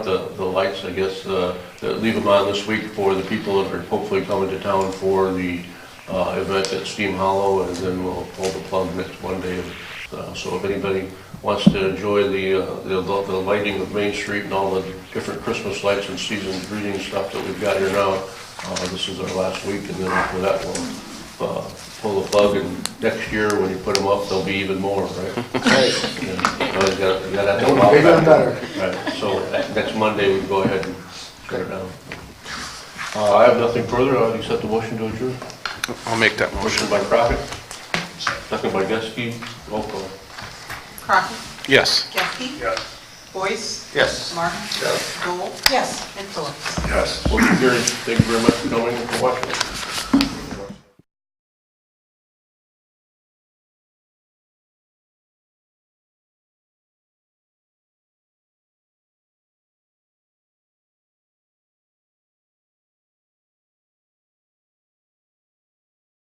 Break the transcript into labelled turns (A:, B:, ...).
A: The, the lights, I guess, uh, that- leave them on this week for the people that are hopefully coming to town for the uh, event at Steam Hollow, and then we'll pull the plug next Monday. Uh, So if anybody wants to enjoy the, uh, the the lighting of Main Street and all the different Christmas lights and season greeting stuff that we've got here now, uh, this is our last week, and then after that, we'll uh, pull the plug, and next year, when you put them up, there'll be even more, right?
B: Right,
A: Yeah, always gotta- you gotta have
B: Only
A: to-
B: bigger and better.
A: Right, so that- next Monday, we can go ahead and cut it down. Uh, I have nothing further, I'll accept the motion to adjourn.
C: I'll make that motion.
A: Motion by Crockett, second by Geske, roll call.
D: Crockett.
C: Yes.
D: Geske.
A: Yes.
D: Boyce.
C: Yes.
D: Martin. Yes. Gold. Yes. And Phillips.
A: Yes. Motion carries, thank you very much for coming and for watching.